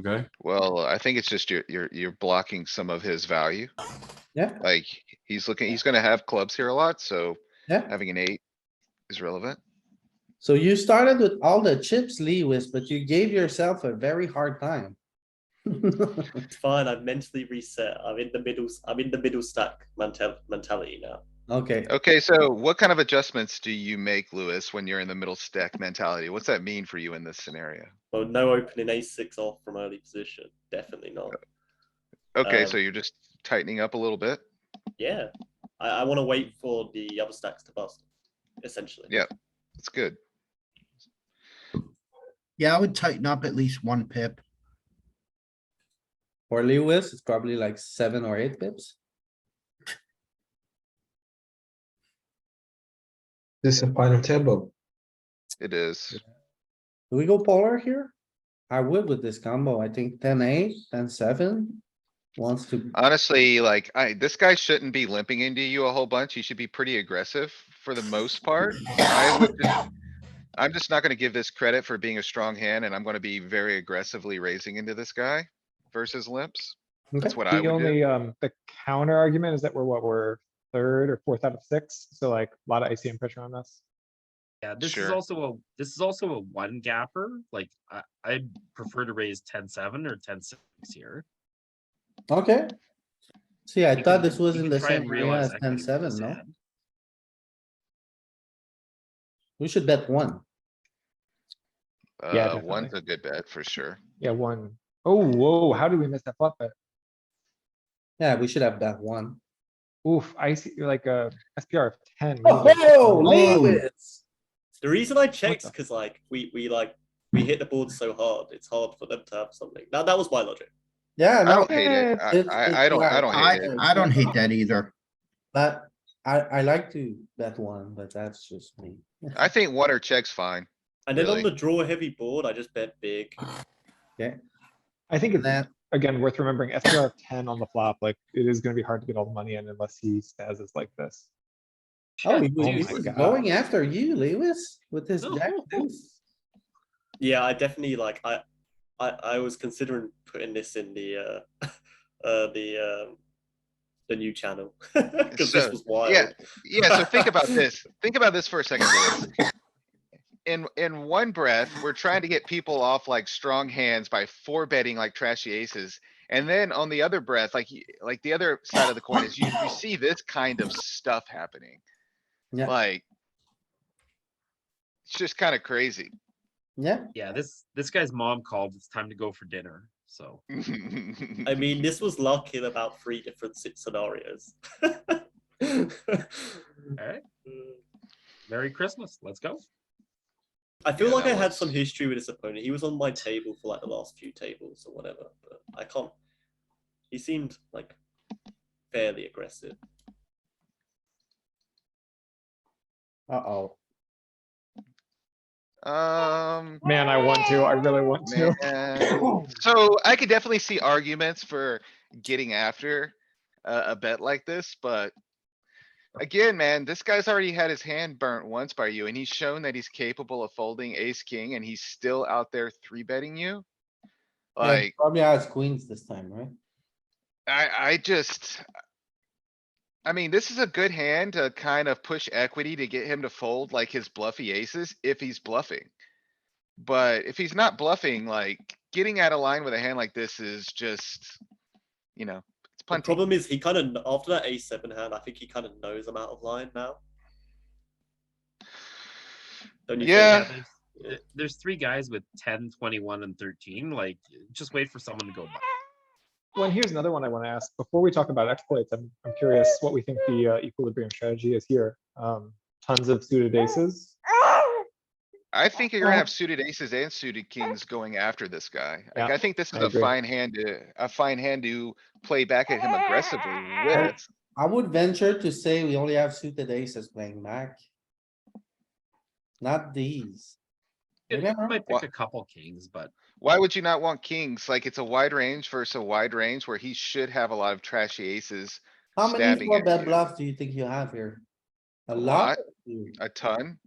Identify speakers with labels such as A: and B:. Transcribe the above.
A: Okay,
B: Well, I think it's just you're, you're, you're blocking some of his value.
C: Yeah.
B: Like, he's looking, he's gonna have clubs here a lot, so
C: Yeah.
B: having an eight is relevant.
C: So you started with all the chips, Lewis, but you gave yourself a very hard time.
D: It's fine. I've mentally reset. I'm in the middle. I'm in the middle stack mental mentality now.
C: Okay,
B: Okay, so what kind of adjustments do you make, Lewis, when you're in the middle stack mentality? What's that mean for you in this scenario?
D: Well, no opening a six off from early position. Definitely not.
B: Okay, so
D: Um,
B: you're just tightening up a little bit?
D: Yeah, I, I want to wait for the other stacks to bust. Essentially.
B: Yeah. It's good.
E: Yeah, I would tighten up at least one pip.
C: for Lewis, it's probably like seven or eight pips.
F: This is a final table.
B: It is.
C: Do we go polar here? I would with this combo. I think ten eight, ten seven wants to,
B: Honestly, like, I, this guy shouldn't be limping into you a whole bunch. He should be pretty aggressive for the most part. I would just- I'm just not gonna give this credit for being a strong hand and I'm gonna be very aggressively raising into this guy versus limps. That's what I
G: The
B: would do.
G: only, um, the counter argument is that we're what, we're third or fourth out of six, so like a lot of ICM pressure on us.
H: Yeah, this is
B: Sure.
H: also a, this is also a one gapper, like, I, I'd prefer to raise ten seven or ten six here.
C: okay. See, I
H: You
C: thought
H: can-
C: this was
H: you
C: in
H: can
C: the
H: try and
C: same area
H: realize
C: as
H: equity
C: ten
H: with
C: seven,
H: this
C: no?
H: hand.
C: We should bet one.
B: Uh,
G: definitely.
B: one's a good bet for sure.
G: Yeah, one. Oh, whoa, how did we miss that flop bet?
C: Yeah, we should have bet one.
G: Oof, I see, you're like uh, a SPR of ten. really like-
C: Oh,
E: Whoa.
C: Lewis!
D: The reason I checked
G: the-
D: because like we we like we hit the board so hard, it's hard for them to have something. That that was my logic.
C: Yeah,
B: I
C: no,
B: don't hate it. I,
C: it's- it's
B: I, I don't, I
C: like-
B: don't
E: I,
B: hate it.
E: I don't hate that either.
C: but I, I like to bet one, but that's just me.
B: I think one or check's fine.
D: And then on
B: Really?
D: the draw heavy board, I just bet big.
G: I
C: And
G: think it's,
C: that,
G: again, worth remembering SPR of ten on the flop, like it is gonna be hard to get all the money in unless he stas us like this.
C: oh, he
H: Shit,
C: was
G: oh
C: he
G: my
C: was
G: God.
C: going after you, Lewis, with his
H: No.
C: jack deuce.
D: Yeah, I definitely like I, I I was considering putting this in the uh, uh the um, the new channel because
B: So,
D: this was wild.
B: yeah. Yeah, so think about this. Think about this for a second. Lewis. In, in one breath, we're trying to get people off like strong hands by four betting like trashy aces. And then on the other breath, like, y- like the other side of the coin is you, you see this kind of stuff happening.
C: Yeah.
B: Like. It's just kinda crazy.
C: Yeah,
H: Yeah, this, this guy's mom called, it's time to go for dinner, so.
D: I mean, this was lucky in about three different si- scenarios.
H: Alright, Merry Christmas, let's go.
D: I feel
B: Yeah,
D: like
B: that
D: I had
B: was-
D: some history with this opponent. He was on my table for like the last few tables or whatever, but I can't. He seemed like fairly aggressive.
C: uh-oh.
B: Um.
G: Man, I want to, I really want to.
B: Man. So I could definitely see arguments for getting after a, a bet like this, but. Again, man, this guy's already had his hand burnt once by you and he's shown that he's capable of folding ace, king, and he's still out there three betting you.
C: Yeah,
B: Like,
C: Probably has queens this time, right?
B: I, I just. I mean, this is a good hand to kind of push equity to get him to fold like his bluffy aces if he's bluffing. But if he's not bluffing, like getting out of line with a hand like this is just, you know, it's
D: The
B: plenty.
D: problem is he kind of after that a seven hand, I think he kind of knows I'm out of line now. Don't you think?
B: Yeah.
H: there's- there- There's three guys with 10, 21, and thirteen, like, just wait for someone to go by.
G: Well, and here's another one I want to ask. Before we talk about exploits, I'm, I'm curious what we think the uh, equilibrium strategy is here. Um, tons of suited aces.
B: I think you're gonna have suited aces and suited kings going after this guy. Like,
G: Yeah,
B: I think this
G: I
B: is a
G: agree.
B: fine hand to, a fine hand to play back at him aggressively with.
C: I would venture to say we only have suited aces playing back. Not these.
H: Yeah,
C: Yeah.
H: I might
B: Wha-
H: pick a couple kings, but
B: Why would you not want kings? Like, it's a wide range versus a wide range where he should have a lot of trashy aces,
C: How many
B: Stabbing
C: four
B: at
C: bet
B: you.
C: bluffs do you think you have here? A lot?
B: a ton.